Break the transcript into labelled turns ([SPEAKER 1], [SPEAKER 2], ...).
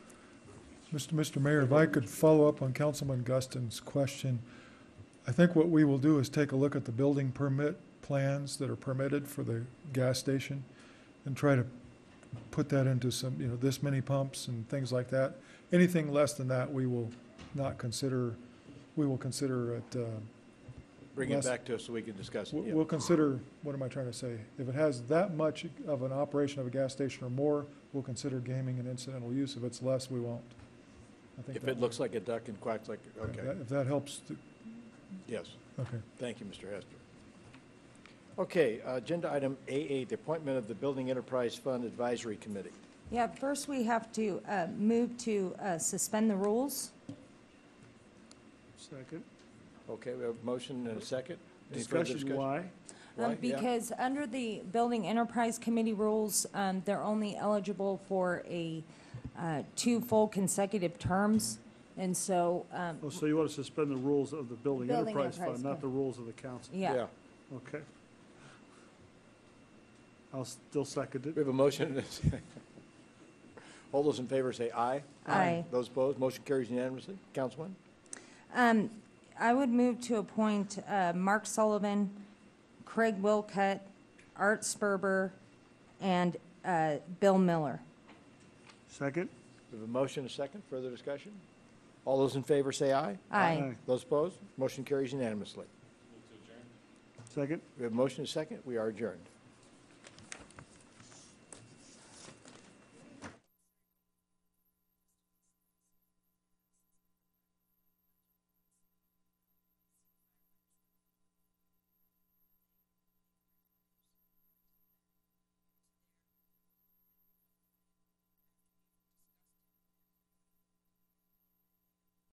[SPEAKER 1] Mr. Mr. Mayor, if I could follow up on Councilman Guston's question, I think what we will do is take a look at the building permit plans that are permitted for the gas station and try to put that into some, you know, this many pumps and things like that. Anything less than that, we will not consider, we will consider it, uh,
[SPEAKER 2] Bring it
[SPEAKER 1] Yes.
[SPEAKER 2] back to us so we can discuss it.
[SPEAKER 1] we-
[SPEAKER 2] yeah.
[SPEAKER 1] we'll consider, what am I trying to say? If it has that much of an operation of a gas station or more, we'll consider gaming an incidental use. If it's less, we won't. I think
[SPEAKER 2] If
[SPEAKER 1] that-
[SPEAKER 2] it looks like a duck and quacks like, okay,
[SPEAKER 1] that- If that helps, to-
[SPEAKER 2] yes.
[SPEAKER 1] okay.
[SPEAKER 2] Thank you, Mr. Hester. Okay, uh, agenda item A8, the appointment of the Building Enterprise Fund Advisory Committee.
[SPEAKER 3] Yeah, first we have to uh, move to uh, suspend the rules.
[SPEAKER 4] Second.
[SPEAKER 2] Okay, we have a motion and a second. Any further
[SPEAKER 4] Discussion, why?
[SPEAKER 3] Um,
[SPEAKER 2] Why? Yeah.
[SPEAKER 3] Because under the Building Enterprise Committee rules, um, they're only eligible for a, uh, two full consecutive terms. And so, um,
[SPEAKER 4] Oh, so you want to suspend the rules of the Building
[SPEAKER 3] Building
[SPEAKER 4] Enterprise
[SPEAKER 3] Enterprise
[SPEAKER 4] Fund, not
[SPEAKER 3] Fund.
[SPEAKER 4] the rules of the council?
[SPEAKER 3] yeah.
[SPEAKER 4] Okay. I'll still second
[SPEAKER 2] We
[SPEAKER 4] it.
[SPEAKER 2] have a motion and a second. All those in favor say aye.
[SPEAKER 3] Aye.
[SPEAKER 2] Those opposed, motion carries unanimously. Councilman?
[SPEAKER 3] Um, I would move to appoint uh, Mark Sullivan, Craig Wilcutt, Art Sperber, and uh, Bill Miller.
[SPEAKER 4] Second?
[SPEAKER 2] We have a motion and a second. Further discussion? All those in favor say aye.
[SPEAKER 3] Aye.
[SPEAKER 2] Those opposed, motion carries unanimously.
[SPEAKER 4] Second?
[SPEAKER 2] We have a motion and a second. We are adjourned.